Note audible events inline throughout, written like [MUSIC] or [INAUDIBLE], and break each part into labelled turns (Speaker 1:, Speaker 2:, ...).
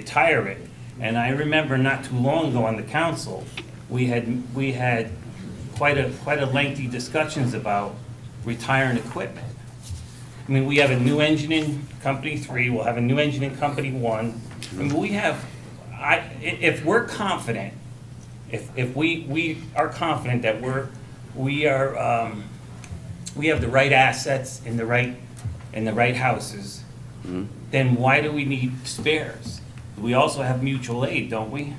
Speaker 1: retire it. And I remember not too long ago on the council, we had, we had quite a, quite a lengthy discussions about retiring equipment. I mean, we have a new engine in company three, we'll have a new engine in company one. I mean, we have, I, i- if we're confident, if, if we, we are confident that we're, we are, um, we have the right assets in the right, in the right houses,
Speaker 2: Hmm?
Speaker 1: then why do we need spares? We also have mutual aid, don't we?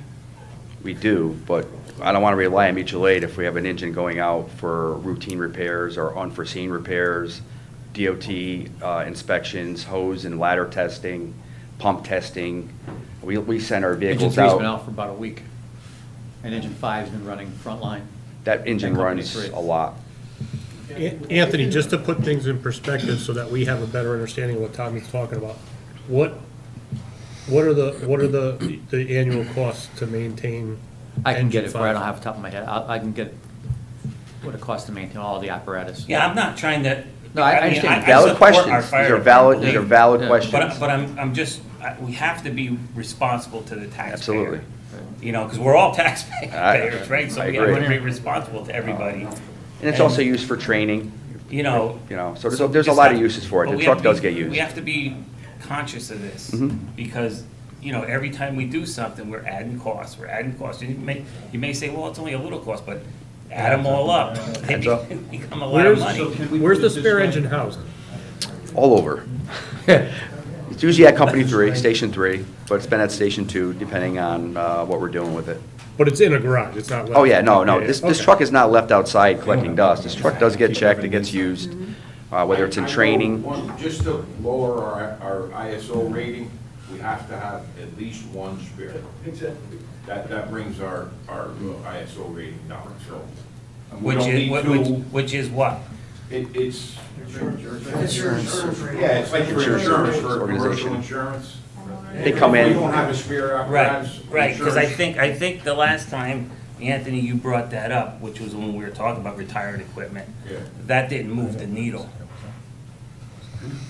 Speaker 2: We do, but I don't want to rely on mutual aid if we have an engine going out for routine repairs or unforeseen repairs, DOT uh, inspections, hose and ladder testing, pump testing. We, we send our
Speaker 3: Engine
Speaker 2: vehicles
Speaker 3: three's been
Speaker 2: out.
Speaker 3: out for about a week, and engine five's been running frontline.
Speaker 2: That engine
Speaker 3: and company
Speaker 2: runs
Speaker 3: three.
Speaker 2: a lot.
Speaker 4: An- Anthony, just to put things in perspective so that we have a better understanding of what Tommy's talking about, what, what are the, what are the, the annual costs to maintain?
Speaker 3: I can get
Speaker 4: Engine
Speaker 3: it, but I
Speaker 4: five?
Speaker 3: don't have it off the top of my head. I, I can get what it costs to maintain all the apparatus.
Speaker 1: Yeah, I'm not trying to.
Speaker 3: No, I- I
Speaker 1: mean,
Speaker 3: understand.
Speaker 1: I
Speaker 2: Valid
Speaker 1: support our
Speaker 2: questions. These
Speaker 1: fire
Speaker 2: are valid,
Speaker 1: department,
Speaker 2: these are valid
Speaker 3: Yeah.
Speaker 1: But,
Speaker 2: questions.
Speaker 1: but I'm, I'm just, I- we have to be responsible to the taxpayer.
Speaker 2: Absolutely.
Speaker 1: You know, because we're all [LAUGHS] taxpayers, right? So
Speaker 2: I Oh.
Speaker 1: we have to
Speaker 3: agree.
Speaker 1: be responsible to everybody,
Speaker 2: And it's also used for training,
Speaker 1: you know.
Speaker 2: you know, so there's, a- there's a lot of uses for it.
Speaker 1: But
Speaker 2: The
Speaker 1: we
Speaker 2: truck
Speaker 1: have to
Speaker 2: does
Speaker 1: be-
Speaker 2: get
Speaker 1: We
Speaker 2: used.
Speaker 1: have to be conscious of this,
Speaker 2: Mhm.
Speaker 1: because, you know, every time we do something, we're adding costs, we're adding costs. You may, you may say, well, it's only a little cost, but add them all up, [LAUGHS] they
Speaker 2: Adds up.
Speaker 1: become a lot of
Speaker 4: Where's,
Speaker 1: money.
Speaker 4: where's the spare engine housed?
Speaker 2: All over. [LAUGHS] It's usually at company three, station three, but it's been at station two, depending on uh, what we're doing with it.
Speaker 4: But it's in a garage, it's not.
Speaker 2: Oh, yeah, no, no, this, this truck is not left outside collecting dust. This truck does get checked, it gets used, uh, whether it's in
Speaker 5: I- I know
Speaker 2: training.
Speaker 5: one- Just to lower our, our ISO rating, we have to have at least one spare. Exactly. That, that brings our, our ISO rating down, so. and we
Speaker 1: Which
Speaker 5: don't
Speaker 1: is,
Speaker 5: need
Speaker 1: which,
Speaker 5: two.
Speaker 1: which is what?
Speaker 5: It, it's,
Speaker 6: Insurance.
Speaker 5: yeah, it's like for insurance, for commercial
Speaker 2: Organization.
Speaker 5: insurance.
Speaker 2: They come
Speaker 5: If
Speaker 2: in,
Speaker 5: We don't have a spare
Speaker 1: Right,
Speaker 5: apparatus.
Speaker 1: right, because I
Speaker 5: insurance-
Speaker 1: think, I think the last time, Anthony, you brought that up, which was when we were talking about retired equipment.
Speaker 5: Yeah.
Speaker 1: That didn't move the needle.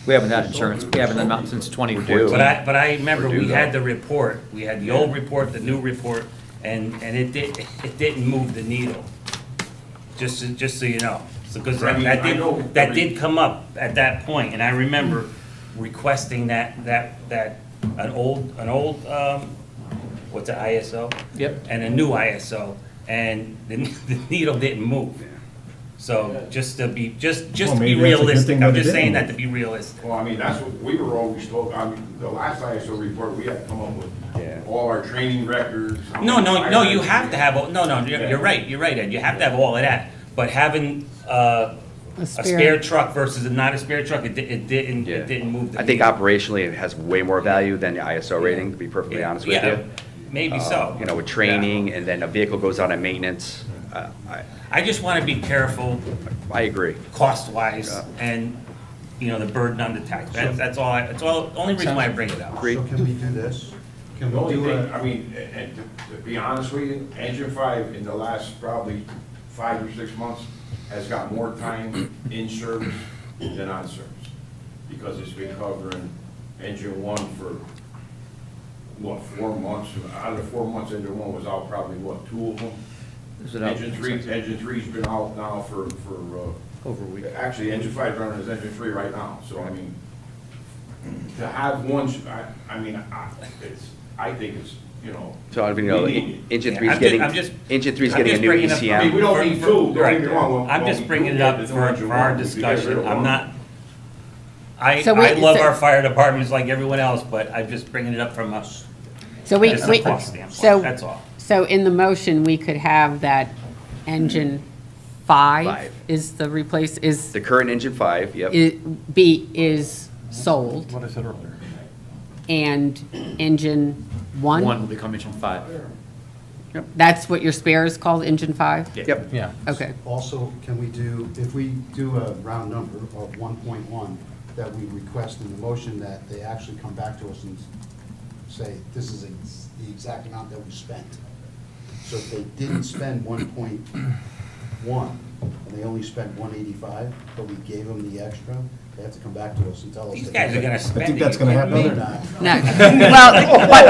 Speaker 3: We haven't had insurance, we haven't done that since twenty
Speaker 2: due.
Speaker 1: But
Speaker 3: fourteen.
Speaker 1: I, but I remember
Speaker 2: Or do
Speaker 1: we had
Speaker 2: though.
Speaker 1: the report, we had the old report, the new report, and, and it did, it didn't move the needle. Just, so- just so you know, because
Speaker 5: I
Speaker 1: that
Speaker 5: mean,
Speaker 1: that
Speaker 5: I know-
Speaker 1: did, that
Speaker 5: I
Speaker 1: did
Speaker 5: mean-
Speaker 1: come up at that point, and I remember
Speaker 7: Hmm.
Speaker 1: requesting that, that, that, an old, an old, um, what's it, ISO?
Speaker 3: Yep.
Speaker 1: And a new ISO, and the, the needle didn't move. So, just to be, just, just to
Speaker 7: Well,
Speaker 1: be
Speaker 7: maybe that's a good
Speaker 1: realistic,
Speaker 7: thing
Speaker 1: I'm
Speaker 7: that it
Speaker 1: just
Speaker 7: didn't
Speaker 1: saying that
Speaker 7: move.
Speaker 1: to be realistic.
Speaker 5: Well, I mean, that's what, we were always told, I mean, the last ISO report, we had to come up
Speaker 2: Yeah.
Speaker 5: with all our training records. how
Speaker 1: No,
Speaker 5: many
Speaker 1: no, no,
Speaker 5: fire
Speaker 1: you have
Speaker 5: hydrants we
Speaker 1: to
Speaker 5: had.
Speaker 1: have, all- no, no, you're,
Speaker 5: Yeah.
Speaker 1: you're right, you're right, Ed, you have to have all of that, but having, uh, a spare
Speaker 6: spare.
Speaker 1: truck versus a not a spare truck, it di- it didn't,
Speaker 2: Yeah.
Speaker 1: it didn't move the.
Speaker 2: I think
Speaker 1: needle.
Speaker 2: operationally, it has way more value than the ISO rating, to be perfectly
Speaker 1: Yeah,
Speaker 2: honest with
Speaker 1: yeah, Oh.
Speaker 2: you.
Speaker 1: Maybe
Speaker 2: Uh,
Speaker 1: so.
Speaker 2: You know, with training, and then a vehicle goes out on maintenance. Uh, I,
Speaker 1: I just wanna be careful
Speaker 2: I agree.
Speaker 1: cost-wise
Speaker 2: Yeah.
Speaker 1: and, you know, the burden on the tax, that's, that's all, I- that's all, only reason why I bring it up.
Speaker 2: Agree.
Speaker 7: So can we do this? Can
Speaker 5: The
Speaker 7: we
Speaker 5: only
Speaker 7: do
Speaker 5: thing, I
Speaker 7: a,
Speaker 5: mean, a- and to to be honest with you, engine five in the last probably five or six months has got more time in service than on service. Because it's been covering engine one for, what, four months? Out of the four months, engine one was out probably, what, two of them?
Speaker 3: Is it out?
Speaker 5: Engine three, engine three's been out now for, for, uh.
Speaker 3: Over a week.
Speaker 5: Actually, engine five running is engine three right now, so I mean, to have one, sh- I, I mean, I, it's, I think it's, you know.
Speaker 2: So, I mean, you
Speaker 5: we
Speaker 2: know,
Speaker 5: need it.
Speaker 2: engine
Speaker 1: Yeah,
Speaker 2: three's
Speaker 1: I'm ju-
Speaker 2: getting,
Speaker 1: I'm just-
Speaker 2: engine three's
Speaker 1: I'm
Speaker 2: getting a
Speaker 1: just
Speaker 2: new E
Speaker 1: bringing up- I
Speaker 5: I mean, we
Speaker 2: ECM.
Speaker 5: don't need two, don't get me wrong. when-
Speaker 1: I'm
Speaker 5: when
Speaker 1: just
Speaker 5: we
Speaker 1: bringing it
Speaker 5: do
Speaker 1: up
Speaker 5: get the
Speaker 1: for,
Speaker 5: engine
Speaker 1: for our
Speaker 5: one, we could get rid of
Speaker 1: discussion, I'm
Speaker 5: one.
Speaker 1: not, I,
Speaker 6: So
Speaker 1: I
Speaker 6: wait,
Speaker 1: love
Speaker 6: so-
Speaker 1: our fire departments like everyone else, but I'm just bringing it up from a,
Speaker 6: So we,
Speaker 1: Just a
Speaker 6: we,
Speaker 1: cost standpoint,
Speaker 6: so,
Speaker 1: that's all.
Speaker 6: so in the motion, we could have that engine five
Speaker 2: Five.
Speaker 6: is the replace, is,
Speaker 2: The current engine five, yep.
Speaker 6: i- B is sold
Speaker 7: what I said earlier?
Speaker 6: and engine
Speaker 3: One
Speaker 6: one?
Speaker 3: will become engine five.
Speaker 6: That's what your spare is called, engine five?
Speaker 2: Yep.
Speaker 3: Yeah.
Speaker 6: Okay.
Speaker 7: Also, can we do, if we do a round number of one point one, that we request in the motion that they actually come back to us and say, this is ex- the exact amount that we spent. So if they didn't spend one point one, and they only spent one eighty-five, but we gave them the extra, they have to come back to us and tell us.
Speaker 1: These
Speaker 7: that-
Speaker 1: guys are gonna spend.
Speaker 7: No,
Speaker 1: it, you
Speaker 7: they're not.
Speaker 6: No, well, but